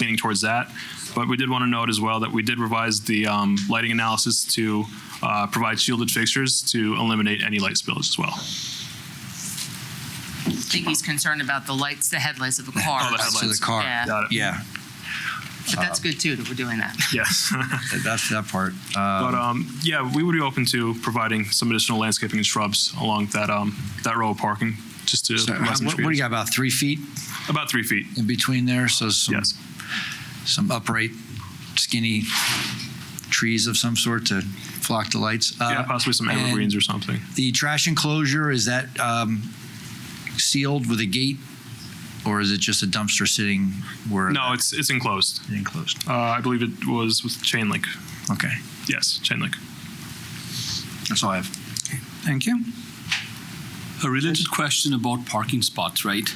leaning towards that. But we did want to note as well that we did revise the um, lighting analysis to uh, provide shielded fixtures to eliminate any light spillage as well. I think he's concerned about the lights, the headlights of the car. Oh, the but- headlights. to the car. Uh, Yeah. Got it. Yeah, But that's good too, that we're doing that. Yes. that- that's that part. But Um, um, yeah, we would be open to providing some additional landscaping and shrubs along that um, that row of parking, just to so provide how- some What what do you trees. got, about three feet about three feet. in between there? So some, Yes, some upright skinny trees of some sort to flock the lights? yeah, Uh, possibly some and evergreens or something. The trash enclosure, is that um, sealed with a gate? Or is it just a dumpster sitting where? No, it's it's enclosed. Enclosed, Uh, I believe it was with chain link. okay. Yes, chain link. That's all I have. Thank you. A related question about parking spots, right?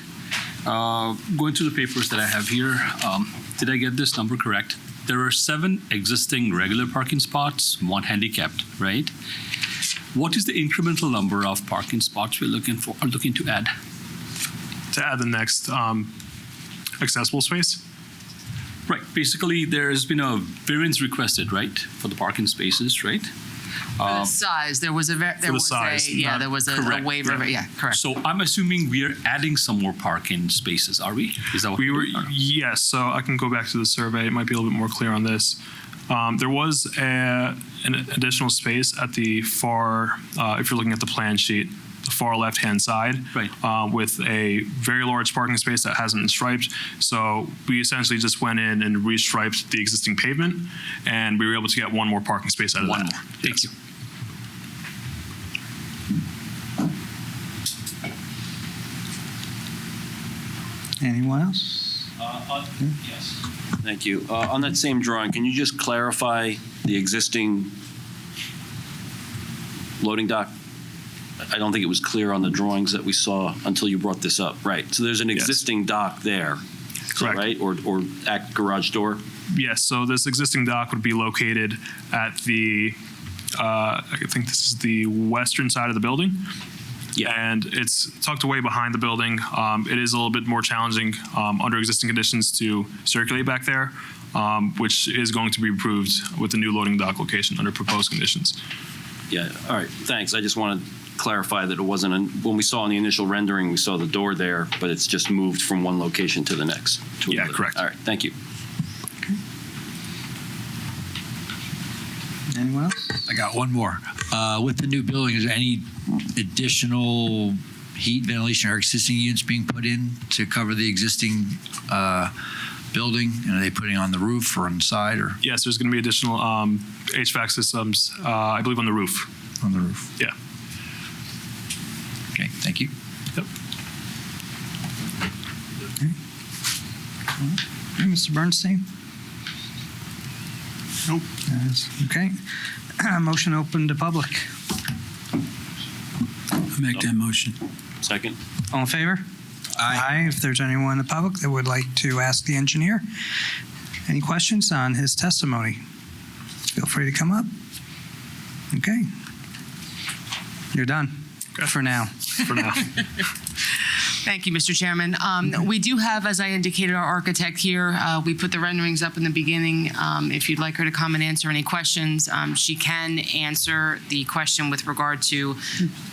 Uh, Going through the papers that I have here, um, did I get this number correct? There are seven existing regular parking spots, one handicapped, right? What is the incremental number of parking spots we're looking for, are looking to add? To add the next um, accessible space. Right, basically, there's been a variance requested, right, for the parking spaces, right? For the size, there was a, ver- the there was a, size, yeah, not- there was a- a correct, waiver, yeah, correct. So I'm assuming we are adding some more parking spaces, are we? Is that what? We were are? yes. So I can go back to the survey. It might be a little bit more clear on this. Um, there was a, an additional space at the far, uh, if you're looking at the plan sheet, the far left-hand side, Right. uh, with a very large parking space that hasn't been striped. So we essentially just went in and restriped the existing pavement, and we were able to get one more parking space out of One that. more, thank you. Anyone else? Hmm? Thank you. Uh, On that same drawing, can you just clarify the existing loading dock? I don't think it was clear on the drawings that we saw until you brought this up. Right, so there's an Yes. existing dock there. so, Correct. Right, or, or at garage door? Yes, so this existing dock would be located at the, uh, I think this is the western side of the building. Yeah. And it's tucked away behind the building. Um, It is a little bit more challenging um, under existing conditions to circulate back there, um, which is going to be improved with the new loading dock location under proposed conditions. Yeah, all right, thanks. I just want to clarify that it wasn't, an- when we saw in the initial rendering, we saw the door there, but it's just moved from one location to the next. to Yeah, another. correct. All right, thank you. Anyone else? I got one more. Uh, With the new building, is there any additional heat, ventilation, or existing units being put in to cover the existing uh, building? And are they putting on the roof or inside or Yes, there's going to be additional um, HVAC systems, uh, I believe, on the roof. on the roof? Yeah. Okay, thank you. Hey, Mr. Bernstein? Nope. Okay. Motion open to public. Make that motion. Second? All in favor? Aye. If there's anyone in the public that would like to ask the engineer any questions on his testimony, feel free to come up. Okay. You're done for now. For now, Thank you, Mr. Chairman. Um, We do have, as I indicated, our architect here. Uh, We put the renderings up in the beginning. Um, If you'd like her to come and answer any questions, um, she can answer the question with regard to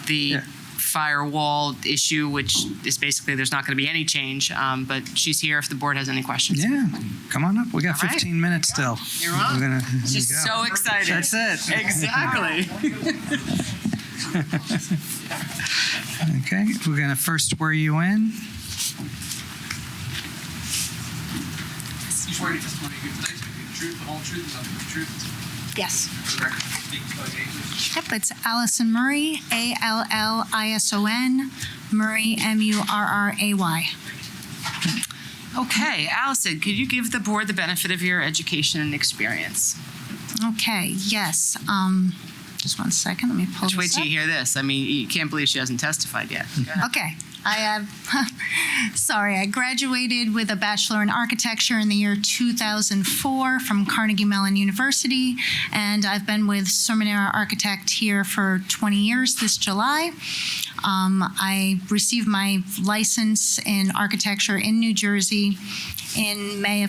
the Yeah. firewall issue, which is basically, there's not going to be any change, um, but she's here if the board has any questions. Yeah, come on up. We got All right. 15 minutes still. You're on. We're gonna- there She's you so go. excited. That's it. Exactly. Okay, we're gonna first swear you in. You swear your testimony you give tonight is the truth, the whole truth, and nothing but the truth. Yes. For the record, speak by name, please. Yep, it's Allison Murray, A L L I S O N, Murray, M U R R A Y. Okay, Allison, could you give the board the benefit of your education and experience? Okay, yes. Um, just one second, let me pull Just wait this till up. you hear this. I mean, you can't believe she hasn't testified yet. Okay. I have, sorry, I graduated with a Bachelor in Architecture in the year 2004 from Carnegie Mellon University, and I've been with Sermonera Architect here for 20 years this July. Um, I received my license in architecture in New Jersey in May of